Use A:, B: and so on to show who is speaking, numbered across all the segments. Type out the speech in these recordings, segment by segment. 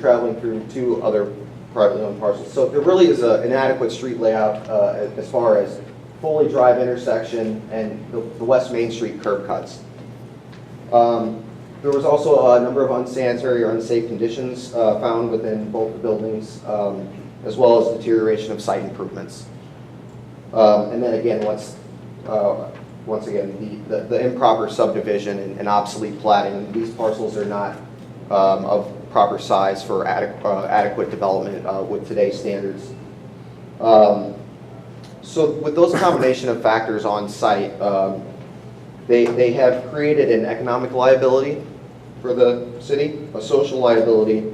A: traveling through two other privately owned parcels. So there really is a- an adequate street layout uh, as far as Foley Drive intersection and the the West Main Street curb cuts. Um, There was also a number of unsanitary or unsafe conditions uh, found within both the buildings, um, as well as deterioration of site improvements. Um, And then again, once, uh, once again, the- the the improper subdivision and- and obsolete plating, these parcels are not um, of proper size for adequ- uh, adequate development uh, with today's standards. Um, So with those combination of factors on site, um, they, they have created an economic liability for the city, a social liability,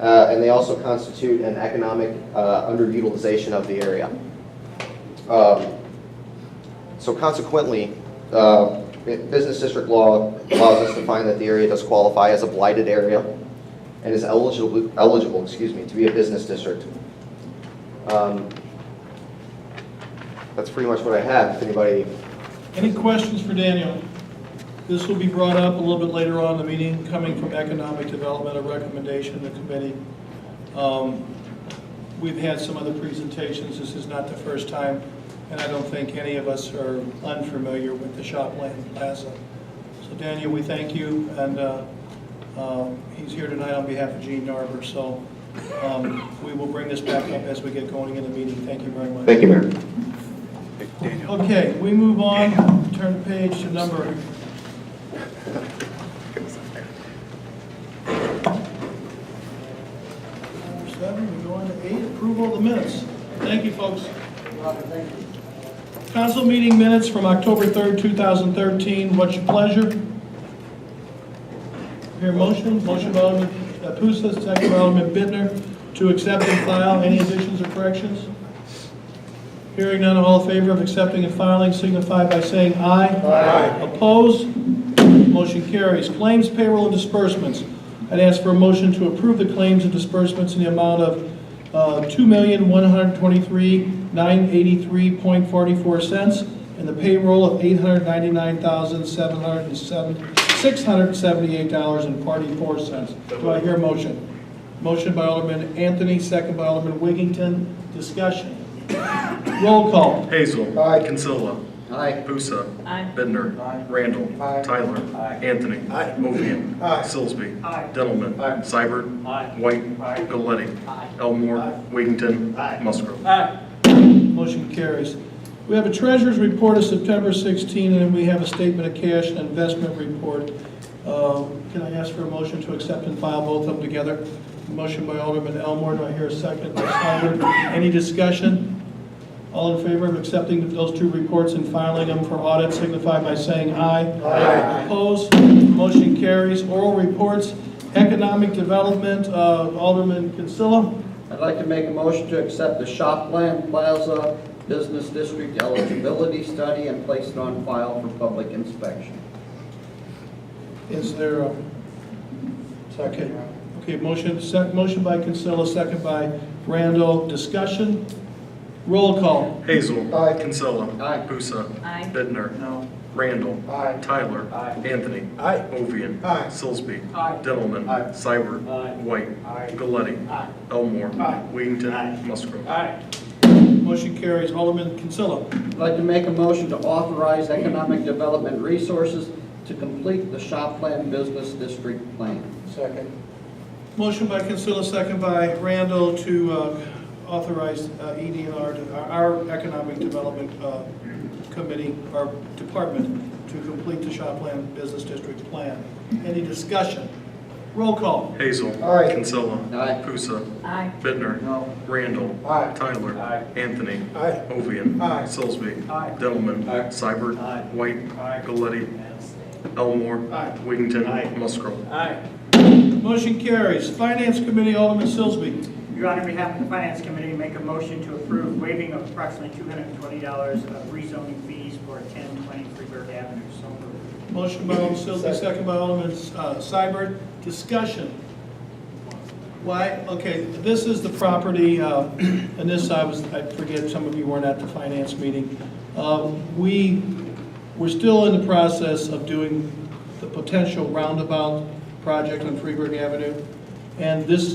A: uh, and they also constitute an economic uh, underutilization of the area. Um, So consequently, uh, bu- business district law allows us to find that the area does qualify as a blighted area and is eligible, eligible, excuse me, to be a business district. Um, That's pretty much what I have, if anybody,
B: Any questions for Daniel? This will be brought up a little bit later on in the meeting, coming from Economic Development, a recommendation in the committee. Um, We've had some other presentations, this is not the first time, and I don't think any of us are unfamiliar with the Shopland Plaza. So Daniel, we thank you, and uh, um, he's here tonight on behalf of Gene Narber, so um, we will bring this back up as we get going in the meeting. Thank you very much.
A: thank you, Mayor.
B: Okay, we move on, turn page to number, number seven, we go on to eight, approval of the minutes. Thank you, folks. Council meeting minutes from October 3rd, 2013, what's your pleasure? Hear motion, motion by Alderman Pusa, second by Alderman Bittner, to accept and file, any additions or corrections? Hearing none, all in favor of accepting and filing signify by saying aye. Aye. Opposed? Motion carries. Claims, payroll, and disbursements. I'd ask for a motion to approve the claims and disbursements in the amount of uh, $2,123,983.44 and the payroll of $899,678.44. Do I hear a motion? Motion by Alderman Anthony, second by Alderman Wiggington. Discussion. Roll call.
C: Hazel.
A: Aye.
C: Kinsella.
A: Aye.
C: Pusa.
D: Aye.
C: Bittner. Randall. Tyler. Anthony. Aye. Ovian. Sillsby. Dettelman. Seibert. White. Galetti. Elmore. Wiggington. Musgrove.
B: Motion carries. We have a treasurer's report of September 16, and we have a statement of cash and investment report. Uh, Can I ask for a motion to accept and file both of them together? Motion by Alderman Elmore, do I hear a second? By Souter. Any discussion? All in favor of accepting those two reports and filing them for audit signify by saying aye. Aye. Opposed? Motion carries. Oral reports, economic development, uh, Alderman Consilla.
E: I'd like to make a motion to accept the Shopland Plaza Business District eligibility study and place it on file for public inspection.
B: Is there a? Second. Okay, motion, sec, motion by Consilla, second by Randall, discussion, roll call.
C: Hazel.
A: Aye.
C: Kinsella.
E: Aye.
C: Pusa.
D: Aye.
C: Bittner.
B: No.
C: Randall.
A: Aye.
C: Tyler. Anthony.
A: Aye.
C: Ovian.
A: Aye.
C: Sillsby.
E: Aye.
C: Dettelman.
A: Aye.
C: Seibert. White. Galetti. Elmore. Wiggington. Musgrove.
B: Motion carries, Alderman Consilla.
E: I'd like to make a motion to authorize Economic Development Resources to complete the Shopland Business District plan.
B: Motion by Consilla, second by Randall to uh, authorize uh, EDR, to- our our Economic Development uh, Committee, our department, to complete the Shopland Business District Plan. Any discussion? Roll call.
C: Hazel. Kinsella.
E: Aye.
C: Pusa.
D: Aye.
C: Bittner. Randall. Tyler. Anthony. Ovian. Sillsby. Delman. Seibert. White. Galletti. Elmore. Wiggington. Musgrove.
F: Aye.
B: Motion carries, Finance Committee, Alderman Silsby.
F: Your Honor, on behalf of the Finance Committee, make a motion to approve waiving of approximately $220 of rezoning fees for 1020 Freeburg Avenue. So moved.
B: Motion by Alderman Silsby, second by Alderman uh, Seibert. Discussion. Why, okay, this is the property, uh, and this, I was, I forget, some of you weren't at the finance meeting. Uh, We, we're still in the process of doing the potential roundabout project on Freeburg Avenue, and this